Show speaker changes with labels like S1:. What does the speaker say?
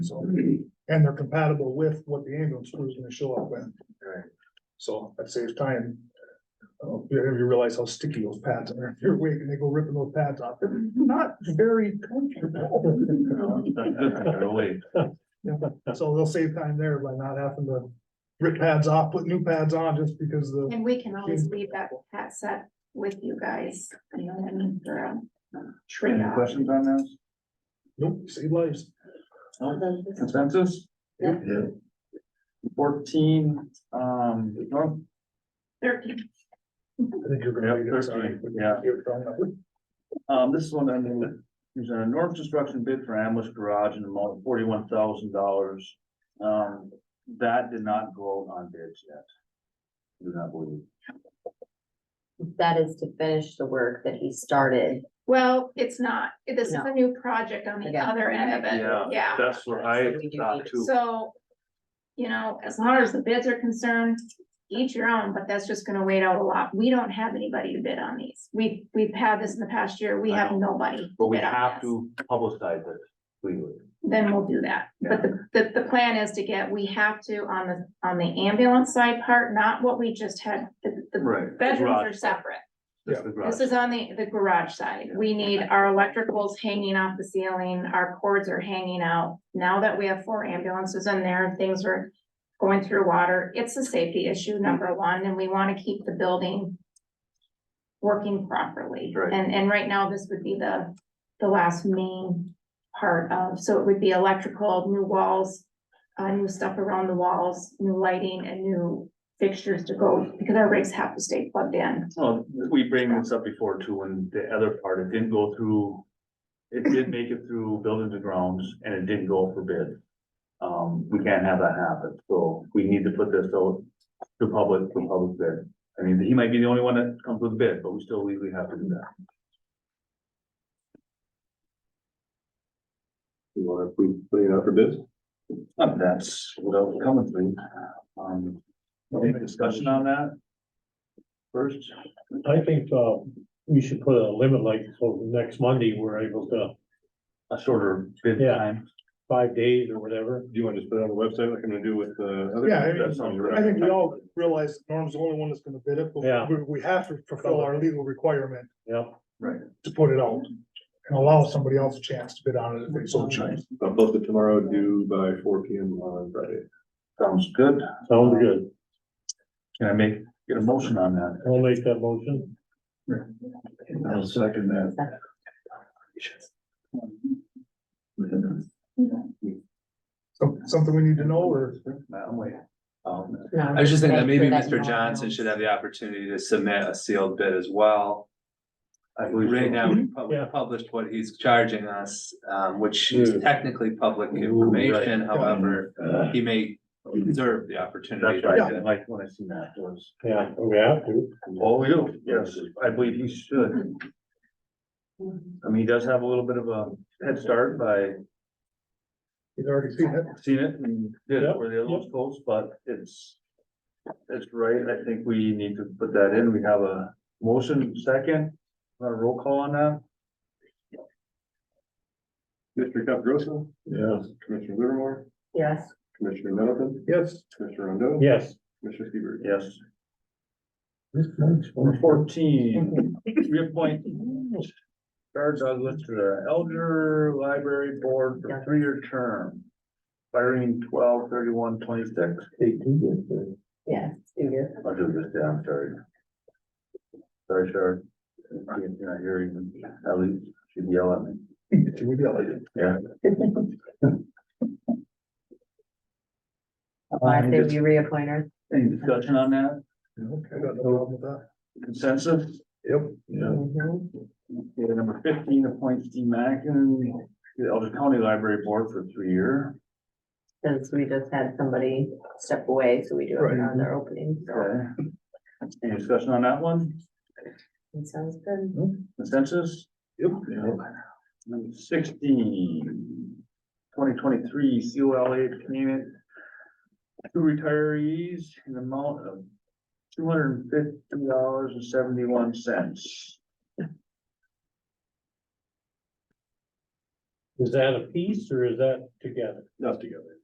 S1: So, and they're compatible with what the ambulance crew is gonna show up with.
S2: Right.
S1: So that saves time. Uh, you know, you realize how sticky those pads are. If you're waiting, they go ripping those pads off. They're not very comfortable.
S2: Really,
S1: So they'll save time there by not having to rip pads off, put new pads on just because the,
S3: And we can always leave that hat set with you guys and then for a
S2: Any
S3: trade-off.
S2: questions on this?
S1: nope, save lives.
S2: Consensus?
S3: Yeah.
S2: Fourteen, um, North
S3: Thirteen.
S1: I think you're gonna.
S2: Yeah,
S1: read it, sorry.
S2: thirteen, yeah.
S1: You're wrong.
S2: Um, this is one I'm gonna, there's a North construction bid for ambush garage in the amount of forty-one thousand dollars. Um, that did not go out on bids yet. Do not believe.
S4: That is to finish the work that he started.
S3: Well, it's not. This is
S4: No.
S3: a new project on the
S4: Yeah.
S3: other end of
S2: Yeah.
S3: it, yeah.
S2: That's what I
S4: So we do
S2: thought
S4: need-
S2: too.
S3: So, you know, as long as the bids are concerned, each your own, but that's just gonna wait out a lot. We don't have anybody to bid on these. We, we've had this in the past year. We
S2: I
S3: have
S2: know.
S3: nobody.
S2: But we
S3: bid on
S2: have
S3: this.
S2: to publicize it clearly.
S3: Then we'll do that. But the, the, the plan is to get, we have to on the, on the ambulance side part, not what we just had. The, the
S2: Right.
S3: bedrooms are
S2: Garage,
S3: separate.
S2: just the garage.
S3: This is on the, the garage side. We need our electricals hanging off the ceiling, our cords are hanging out. Now that we have four ambulances in there, things are going through water. It's a safety issue, number one, and we want to keep the building working properly.
S2: Right.
S3: And, and right now, this would be the, the last main part of, so it would be electrical, new walls, uh, new stuff around the walls, new lighting and new fixtures to go, because our rigs have to stay plugged in.
S2: Well, we bring this up before too, and the other part, it didn't go through. It did make it through buildings and grounds and it didn't go for bid. Um, we can't have that happen, so we need to put this out to public, to public bid. I mean, he might be the only one that comes with a bid, but we still legally have to do that.
S5: You wanna, we put it out for bids?
S2: Um, That's what I was coming through. Um, any discussion on that? First,
S6: I think, uh, we should put a limit like, so next Monday, we're able to,
S2: a shorter bid
S6: Yeah.
S2: time.
S6: five days or whatever.
S5: Do you wanna just put it on the website like I'm gonna do with the other?
S1: Yeah, I mean,
S5: That sounds right.
S1: I think we all realize Norm's the only one that's gonna bid it,
S6: Yeah.
S1: but we, we have to fulfill our legal requirement
S6: Yep,
S1: to put it out. And allow somebody else a chance to bid on it if they so choose.
S5: I'll post it Uh, tomorrow due by four P M on Friday.
S2: Sounds good.
S6: sounds good.
S2: Can I make, get a motion on that?
S6: I'll make that motion.
S2: I'll second that.
S1: So, something we need to know or?
S2: I'm waiting. Um,
S4: No,
S7: I was just thinking that
S4: make
S7: maybe
S4: sure that
S7: Mr.
S4: no
S7: Johnson
S4: one
S7: should have the opportunity to submit a sealed bid as well.
S2: I believe so.
S7: Right now,
S1: Mm-hmm.
S7: we pub-
S6: Yeah.
S7: published what he's charging us, um, which
S6: Yeah.
S5: Mm.
S7: is technically public information, however,
S2: Uh,
S7: he may deserve the opportunity.
S2: That's
S7: to
S2: right,
S1: Yeah.
S2: I didn't like when I seen that was.
S6: Yeah, we have to.
S2: Oh, you, yes, I believe he should. I mean, he does have a little bit of a head start by
S1: He's already seen it.
S2: seeing it and did it
S6: Yep,
S2: where the other ones goes, but it's. It's right, I think we need to put that in, we have a motion second, want a roll call on that?
S5: Mr. Caprosa,
S6: Yes.
S5: Commissioner Livermore,
S4: Yes,
S5: Commissioner Middleton,
S1: Yes.
S5: Commissioner Rondo.
S6: Yes.
S5: Commissioner Seaver.
S2: Yes.
S6: This next
S2: Number fourteen,
S4: Mhm.
S2: reappoint Jared Douglas to the uh, Elder Library Board for a three-year term. Firing twelve thirty-one twenty-six.
S4: yes, yes.
S2: I'll do this, yeah, I'm sorry. Sorry, Jared. You're not hearing, at least she'd yell at me.
S1: Should we be able to-
S2: Yeah.
S4: Why
S2: Um,
S4: they
S2: just-
S4: be reappointed?
S2: Any discussion on that?
S1: Okay, I got no problem with that.
S2: Consensus?
S1: Yep.
S4: Mhm.
S2: Okay, number fifteen, appoint Steve Mackin, to the Elder County Library Board for three-year.
S4: Since we just had somebody step away, so we do have
S1: Right.
S4: another opening, so
S2: Okay. Any discussion on that one?
S4: it sounds good.
S2: Consensus? Yep. Number sixteen, twenty twenty-three COLA payment. to retirees in the amount of two hundred and fifty dollars and seventy-one cents.
S8: Is that a piece or is that together?
S6: Not together.